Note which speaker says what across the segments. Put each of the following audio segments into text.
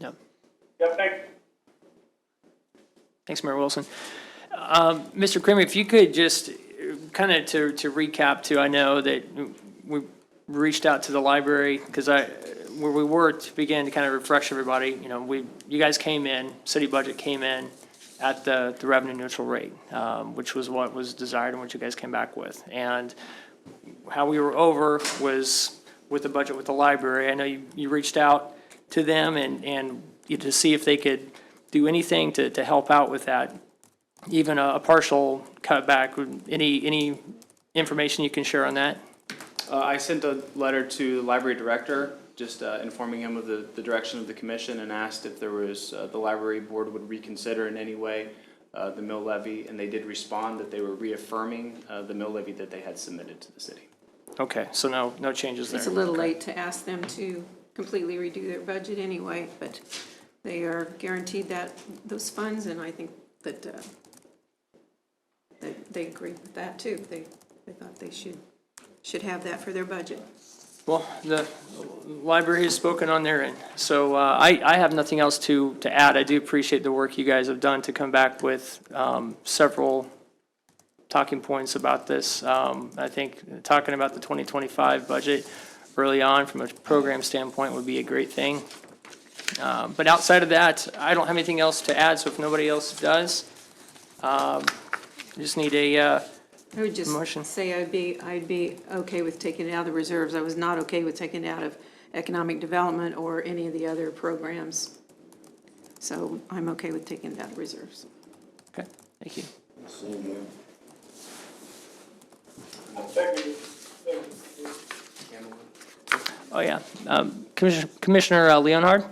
Speaker 1: Yeah.
Speaker 2: Yeah, thanks.
Speaker 1: Thanks, Mayor Wilson. Um, Mr. Kramer, if you could just, kind of to to recap too, I know that we reached out to the library, because I, where we were to begin to kind of refresh everybody, you know, we, you guys came in, city budget came in at the the revenue neutral rate, um, which was what was desired and what you guys came back with. And how we were over was with the budget with the library. I know you, you reached out to them and, and you- to see if they could do anything to, to help out with that. Even a a partial cutback, would- any, any information you can share on that?
Speaker 3: Uh, I sent a letter to the library director, just uh, informing him of the, the direction of the commission and asked if there was, uh, the library board would reconsider in any way uh, the mill levy, and they did respond that they were reaffirming uh, the mill levy that they had submitted to the city.
Speaker 1: Okay, so no, no changes there.
Speaker 4: It's a little late to ask them to completely redo their budget anyway, but they are guaranteed that, those funds, and I think that, uh, that they agree with that too. They, they thought they should, should have that for their budget.
Speaker 1: Well, the library has spoken on their end, so uh, I, I have nothing else to, to add. I do appreciate the work you guys have done to come back with um, several talking points about this. Um, I think talking about the 2025 budget early on from a program standpoint would be a great thing. Uh, But outside of that, I don't have anything else to add, so if nobody else does, um, just need a, uh,
Speaker 4: I would
Speaker 1: Motion.
Speaker 4: just say I'd be, I'd be okay with taking it out of the reserves. I was not okay with taking it out of economic development or any of the other programs. So I'm okay with taking it out of reserves.
Speaker 1: okay, thank you.
Speaker 2: Thank you. Thank you.
Speaker 1: Oh, yeah. Um, Commissioner Commissioner uh, Leonhard?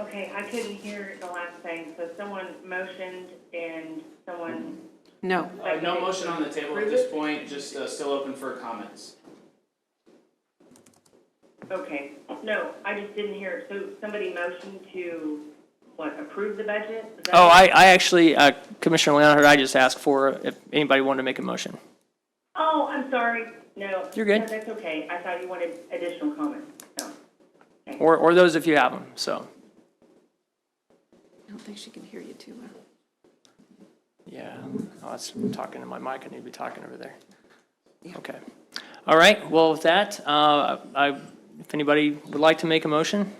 Speaker 5: Okay, I couldn't hear the last thing, so someone motioned and someone,
Speaker 4: No,
Speaker 3: Uh, No motion on the table at this point, just uh, still open for comments.
Speaker 5: okay, no, I just didn't hear it. So somebody motioned to, what, approve the budget? Is that-
Speaker 1: Oh, I, I actually, uh, Commissioner Leonard, I just asked for if anybody wanted to make a motion.
Speaker 5: Oh, I'm sorry, no.
Speaker 1: You're good.
Speaker 5: No, That's okay, I thought you wanted additional comments, no.
Speaker 1: Or, or those if you have them, so,
Speaker 4: I don't think she can hear you too well.
Speaker 1: yeah. Oh, that's, I'm talking to my mic, I need to be talking over there. Okay. All right, well, with that, uh, I, if anybody would like to make a motion?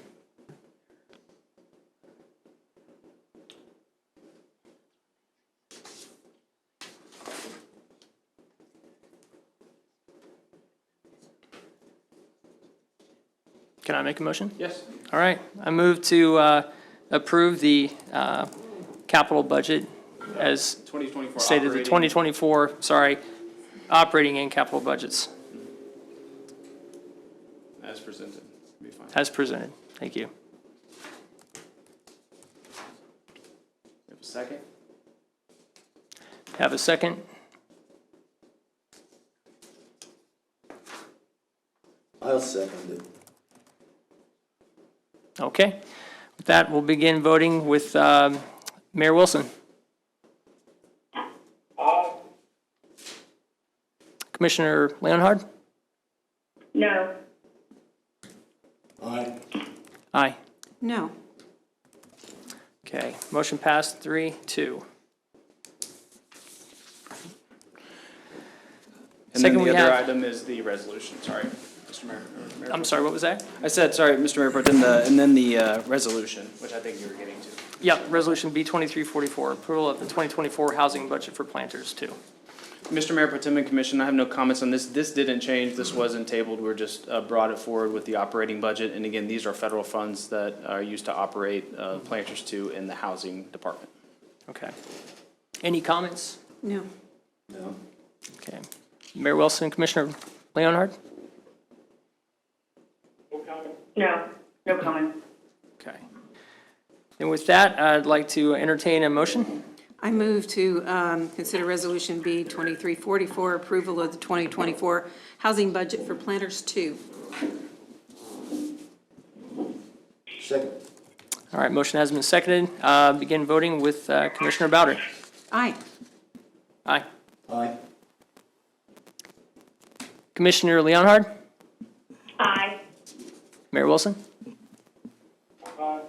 Speaker 1: Can I make a motion?
Speaker 3: Yes?
Speaker 1: All right, I move to uh, approve the uh, capital budget as
Speaker 3: 2024
Speaker 1: stated, the
Speaker 3: operating.
Speaker 1: 2024, sorry, operating and capital budgets
Speaker 3: As presented, be fine.
Speaker 1: as presented. Thank you.
Speaker 3: Have a second?
Speaker 1: Have a second?
Speaker 6: I'll second it.
Speaker 1: Okay. With that, we'll begin voting with um, Mayor Wilson,
Speaker 2: Aye.
Speaker 1: Commissioner Leonhard?
Speaker 5: No,
Speaker 6: Aye.
Speaker 1: Aye.
Speaker 4: No,
Speaker 1: Okay, motion passed, three, two.
Speaker 3: And then
Speaker 1: Second, we
Speaker 3: the other
Speaker 1: have-
Speaker 3: item is the resolution, sorry, Mr. Mayor. or Mayor.
Speaker 1: I'm sorry, what was that?
Speaker 3: I said, sorry, Mr. Mayor, but then the, and then the uh, resolution, which I think you were getting to.
Speaker 1: Yep, Resolution B 2344, approval of the 2024 housing budget for planters, two.
Speaker 3: Mr. Mayor, Potem and Commission, I have no comments on this. This didn't change. This wasn't tabled. We're just uh, brought it forward with the operating budget. And again, these are federal funds that are used to operate uh, Planters Two in the Housing Department.
Speaker 1: Okay. Any comments?
Speaker 4: no.
Speaker 6: No.
Speaker 1: Okay. Mayor Wilson, Commissioner Leonhard?
Speaker 2: No comment.
Speaker 5: no, no comment.
Speaker 1: Okay. And with that, I'd like to entertain a motion.
Speaker 4: I move to um, consider Resolution B 2344, approval of the 2024 housing budget for Planters 2.
Speaker 6: Second.
Speaker 1: All right, motion has been seconded. Uh, Begin voting with uh, Commissioner Bowder.
Speaker 4: Aye.
Speaker 1: Aye.
Speaker 6: Aye.
Speaker 1: Commissioner Leonhard?
Speaker 5: Aye,
Speaker 1: Mayor Wilson?
Speaker 2: Aye.
Speaker 5: Aye.